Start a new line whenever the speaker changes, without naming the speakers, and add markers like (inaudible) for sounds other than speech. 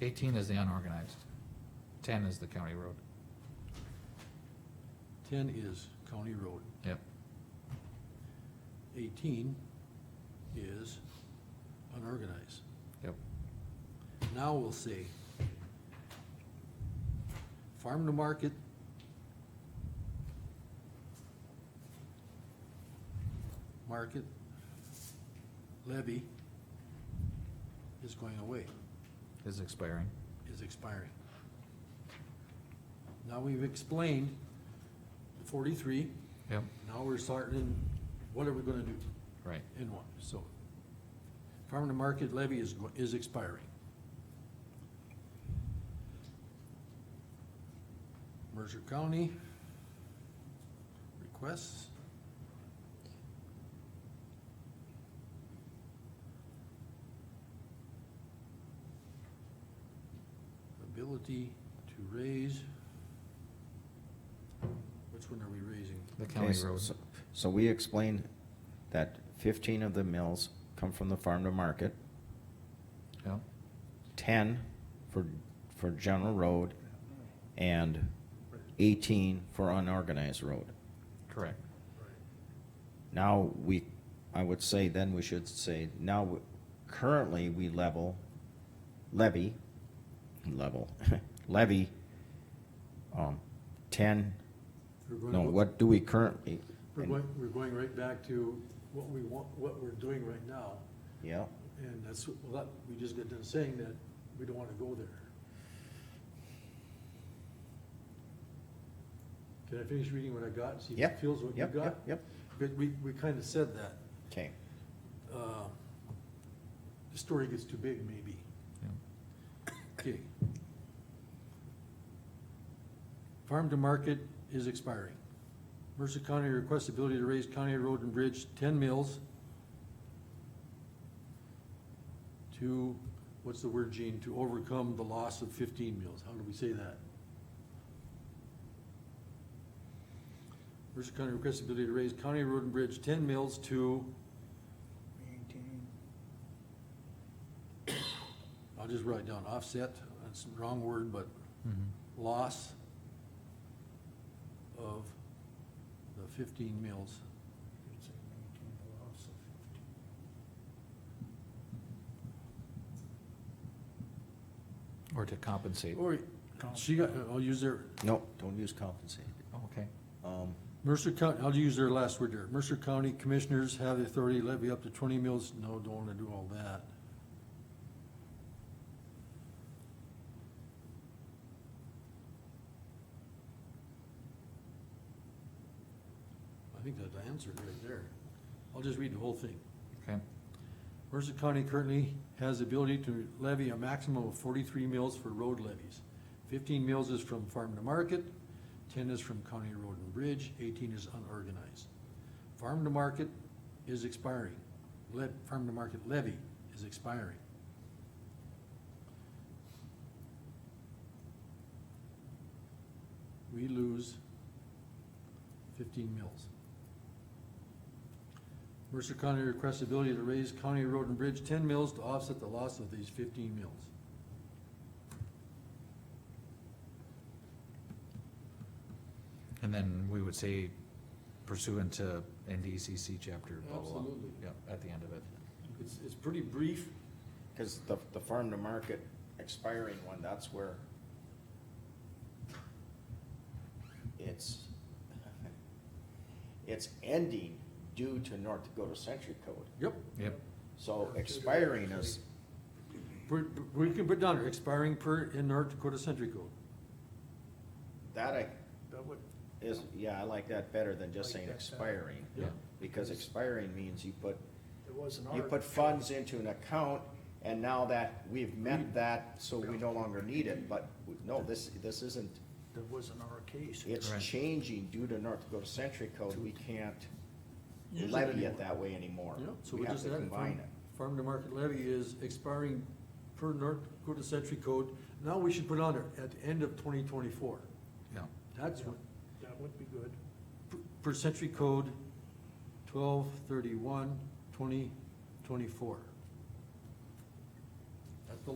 Eighteen is the unorganized. Ten is the county road.
Ten is county road.
Yep.
Eighteen is unorganized.
Yep.
Now we'll say farm to market. Market levy is going away,
Is expiring.
is expiring. Now we've explained the forty-three,
Yep.
now we're starting, in what are we gonna do
Right.
in one, so. Farm to market levy is, go- is expiring. Mercer County. Requests. Ability to raise. Which one are we raising?
The
Okay,
county
so-
road.
so- So we explained that fifteen of the mills come from the farm to market,
Yep.
ten for, for general road, and eighteen for unorganized road.
Correct.
Now, we, I would say, then we should say, now, we- currently, we level, levy, level, (laughs) levy, um, ten,
We're going
no,
with-
what do we currently?
We're going, we're going right back to what we want, what we're doing right now,
Yeah,
and that's, well, that, we just got done saying that we don't wanna go there. Can I finish reading what I got, and see if it
Yep,
feels what you
yep,
got?
yep, yep,
But we, we kinda said that,
okay.
uh, the story gets too big, maybe.
Yep.
Okay. Farm to market is expiring. Mercer County requests ability to raise county road and bridge ten mills to, what's the word, Gene, to overcome the loss of fifteen mills. How do we say that? Mercer County requests ability to raise county road and bridge ten mills to,
Maintain.
I'll just write down offset, that's the wrong word, but
Mhm.
Mm-hmm. loss of the fifteen mills.
you could say maintain the loss of fifteen.
Or to compensate.
Or, she got, I'll use their,
No, don't use compensated.
Oh, Okay.
Um,
Mercer County, I'll use their last word there. Mercer County Commissioners have the authority to levy up to twenty mills. No, don't wanna do all that. I think that answered right there. I'll just read the whole thing.
Okay.
Mercer County currently has the ability to levy a maximum of forty-three mills for road levies. Fifteen mills is from farm to market, ten is from county road and bridge, eighteen is unorganized. Farm to market is expiring, le- farm to market levy is expiring. We lose fifteen mills. Mercer County requests the ability to raise county road and bridge ten mills to offset the loss of these fifteen mills.
And then we would say pursuant to NDCC chapter blah, blah, blah.
Absolutely.
Yep, at the end of it.
It's, it's pretty brief.
Cause the, the farm to market expiring one, that's where it's, (laughs) it's ending due to North Dakota Century Code.
Yep.
Yep.
So expiring is,
We, we can put down here, expiring per, in North Dakota Century Code.
that I,
That would,
is, yeah, I like that better than just saying
Like that better.
expiring.
Yeah.
Because expiring means you put,
there was an
you
art.
put funds into an account and now that we've met that, so we no longer need it, but no, this, this isn't.
There was an our case.
It's
Correct.
changing due to North Dakota Century Code, we can't
Use it
levy
anymore.
it that way anymore.
So
We
we
have
just
to
added
combine
farm,
it.
farm to market levy is expiring per North Dakota Century Code. Now we should put on there, at the end of twenty twenty-four.
Yeah.
That's what,
That would be good.
per- per Century Code, twelve thirty-one, twenty twenty-four.